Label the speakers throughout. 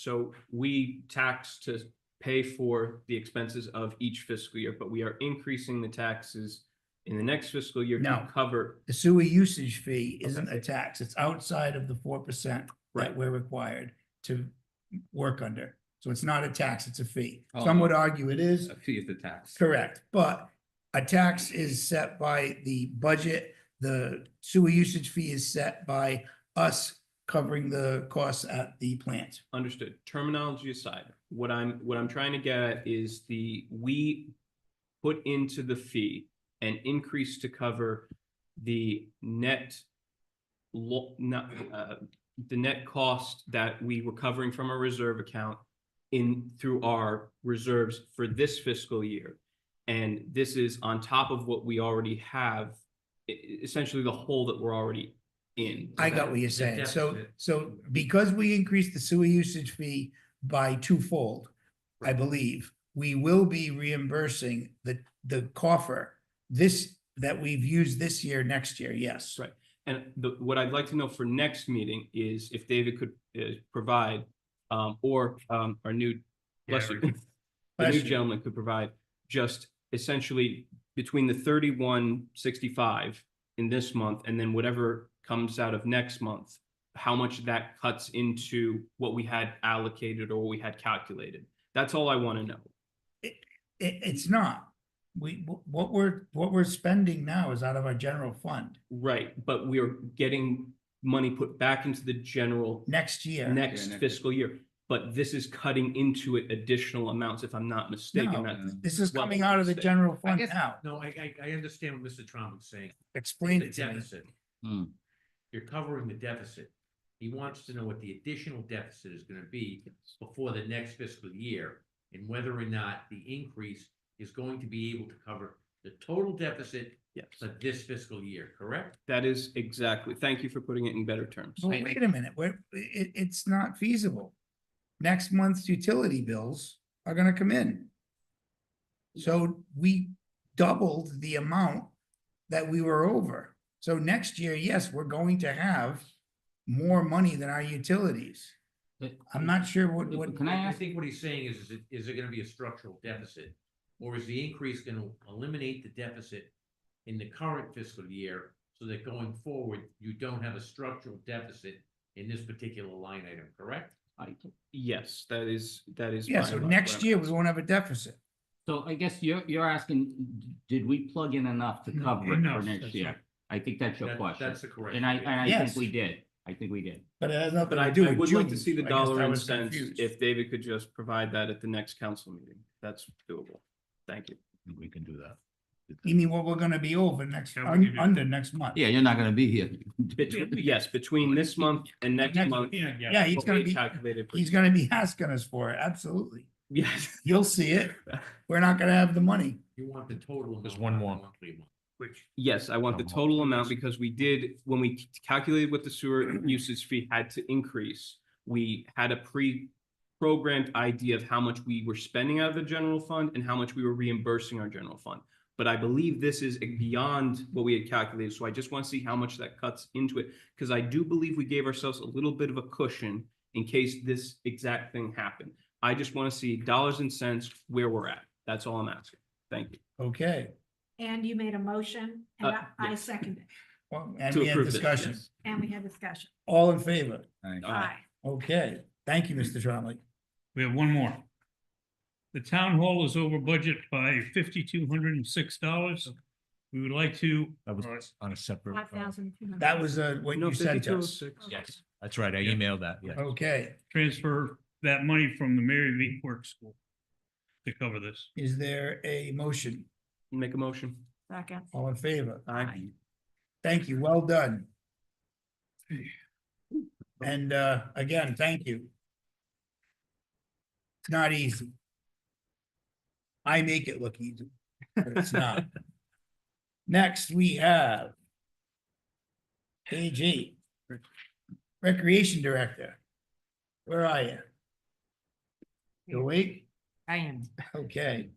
Speaker 1: So we tax to pay for the expenses of each fiscal year, but we are increasing the taxes in the next fiscal year
Speaker 2: No.
Speaker 1: to cover.
Speaker 2: The sewer usage fee isn't a tax. It's outside of the four percent that
Speaker 1: Right.
Speaker 2: we're required to work under. So it's not a tax, it's a fee.
Speaker 3: Oh.
Speaker 2: Some would argue it is,
Speaker 3: A fee of the tax.
Speaker 2: correct, but a tax is set by the budget. The sewer usage fee is set by us covering the costs at the plant.
Speaker 1: Understood. Terminology aside, what I'm, what I'm trying to get at is the, we put into the fee an increase to cover the net lo, not, uh, the net cost that we were covering from our reserve account in, through our reserves for this fiscal year. And this is on top of what we already have, e- e- essentially the hole that we're already in.
Speaker 2: I got what you're saying. So,
Speaker 1: deficit.
Speaker 2: so because we increased the sewer usage fee by twofold, I believe, we will be reimbursing the, the coffer this, that we've used this year, next year, yes.
Speaker 1: Right. And the, what I'd like to know for next meeting is if David could uh, provide, um, or um, our new, bless you, the new
Speaker 2: Bless you.
Speaker 1: gentleman could provide just essentially between the thirty-one sixty-five in this month and then whatever comes out of next month, how much that cuts into what we had allocated or what we had calculated. That's all I want to know.
Speaker 2: It, it's not. We, wh- what we're, what we're spending now is out of our general fund
Speaker 1: Right, but we are getting money put back into the general
Speaker 2: next year.
Speaker 1: next
Speaker 3: next year.
Speaker 1: fiscal year. But this is cutting into it additional amounts, if I'm not mistaken.
Speaker 2: No.
Speaker 1: That-
Speaker 2: This is
Speaker 1: Well,
Speaker 2: coming out of the
Speaker 1: say-
Speaker 2: general fund
Speaker 4: guess-
Speaker 2: now.
Speaker 4: No, I, I, I understand what Mr. Trump is saying,
Speaker 2: Explain
Speaker 4: the
Speaker 2: it to me.
Speaker 4: deficit.
Speaker 3: Hmm.
Speaker 4: You're covering the deficit. He wants to know what the additional deficit is gonna be before the next fiscal year. And whether or not the increase is going to be able to cover the total deficit
Speaker 1: Yes,
Speaker 4: for this fiscal year, correct?
Speaker 1: that is exactly. Thank you for putting it in better terms.
Speaker 2: Well, wait a minute, we're, it, it's not feasible. Next month's utility bills are gonna come in. So we doubled the amount that we were over. So next year, yes, we're going to have more money than our utilities.
Speaker 3: But-
Speaker 2: I'm not sure what, what,
Speaker 3: Can I
Speaker 4: I
Speaker 3: ask,
Speaker 4: think what he's saying is, is it, is it gonna be a structural deficit? Or is the increase gonna eliminate the deficit in the current fiscal year? So that going forward, you don't have a structural deficit in this particular line item, correct?
Speaker 3: I-
Speaker 1: Yes, that is, that is.
Speaker 2: yeah,
Speaker 1: by
Speaker 2: so
Speaker 1: and large what
Speaker 2: next
Speaker 1: I'm-
Speaker 2: year, we won't have a deficit.
Speaker 3: so I guess you're, you're asking, did we plug in enough to
Speaker 2: No,
Speaker 3: cover it for
Speaker 4: enough,
Speaker 3: next
Speaker 4: that's
Speaker 3: year?
Speaker 4: right.
Speaker 3: I think that's your
Speaker 4: That-
Speaker 3: question.
Speaker 4: That's the correct.
Speaker 3: And I,
Speaker 4: answer.
Speaker 3: and I
Speaker 2: Yes.
Speaker 3: think we did. I think we did.
Speaker 2: But it has nothing
Speaker 1: But I,
Speaker 2: to do
Speaker 1: I
Speaker 2: with
Speaker 1: would like to
Speaker 2: June's,
Speaker 1: see the
Speaker 2: so I guess
Speaker 1: dollar
Speaker 2: I
Speaker 1: and
Speaker 2: was
Speaker 1: cents
Speaker 2: confused.
Speaker 1: if David could just provide that at the next council meeting. That's doable. Thank you.
Speaker 3: We can do that.
Speaker 2: You mean what we're gonna be over next,
Speaker 4: Yeah, we can
Speaker 2: un-
Speaker 4: do-
Speaker 2: under next month?
Speaker 3: Yeah, you're not gonna be here.
Speaker 1: Between, yes, between this month and next
Speaker 2: Next-
Speaker 1: month.
Speaker 2: Yeah, he's
Speaker 1: what
Speaker 2: gonna
Speaker 1: we
Speaker 2: be,
Speaker 1: Calculated. for-
Speaker 2: he's gonna be asking us for it, absolutely.
Speaker 1: Yes.
Speaker 2: You'll see it. We're not gonna have the money.
Speaker 4: You want the total.
Speaker 5: There's
Speaker 4: amount,
Speaker 5: one
Speaker 4: not
Speaker 5: more.
Speaker 4: the monthly amount.
Speaker 5: Which,
Speaker 1: Yes, I want the
Speaker 5: Come on.
Speaker 1: total amount because we did, when we c- calculated what the sewer usage fee had to increase, we had a pre-programmed idea of how much we were spending out of the general fund and how much we were reimbursing our general fund. But I believe this is beyond what we had calculated, so I just want to see how much that cuts into it. Because I do believe we gave ourselves a little bit of a cushion in case this exact thing happened. I just want to see dollars and cents where we're at. That's all I'm asking. Thank you.
Speaker 2: Okay,
Speaker 6: And you made a motion and
Speaker 1: Uh,
Speaker 6: I- I
Speaker 1: yes.
Speaker 6: seconded it
Speaker 2: well, and
Speaker 1: To
Speaker 2: we had
Speaker 1: approve this,
Speaker 2: discussion.
Speaker 1: yes.
Speaker 6: and we had discussion.
Speaker 2: All in favor?
Speaker 1: Aye.
Speaker 6: Aye.
Speaker 2: Okay, thank you, Mr. Tromley.
Speaker 5: we have one more. The town hall is over budget by fifty-two hundred and six dollars. We would like to.
Speaker 7: That was
Speaker 5: uh,
Speaker 7: on a separate. uh,
Speaker 6: Five thousand two hundred.
Speaker 2: That was uh, what
Speaker 1: No, oh
Speaker 2: you sent
Speaker 1: 52
Speaker 2: us.
Speaker 7: Yes, that's right. I
Speaker 5: Yeah.
Speaker 7: emailed that, yeah.
Speaker 2: Okay,
Speaker 5: transfer that money from the Mary V. Quirk School to cover this.
Speaker 2: is there a motion?
Speaker 1: Make a motion.
Speaker 6: Second.
Speaker 2: All in favor?
Speaker 1: Aye.
Speaker 2: Thank you, well done. And uh, again, thank you. It's not easy. I make it look easy, but it's not. Next, we have AG, Recreation Director. Where are you? You awake?
Speaker 6: I am.
Speaker 2: Okay.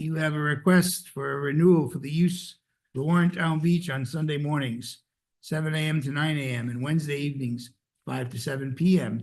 Speaker 2: You have a request for a renewal for the use of the Warrentown Beach on Sunday mornings, seven AM to nine AM, and Wednesday evenings, five to seven PM,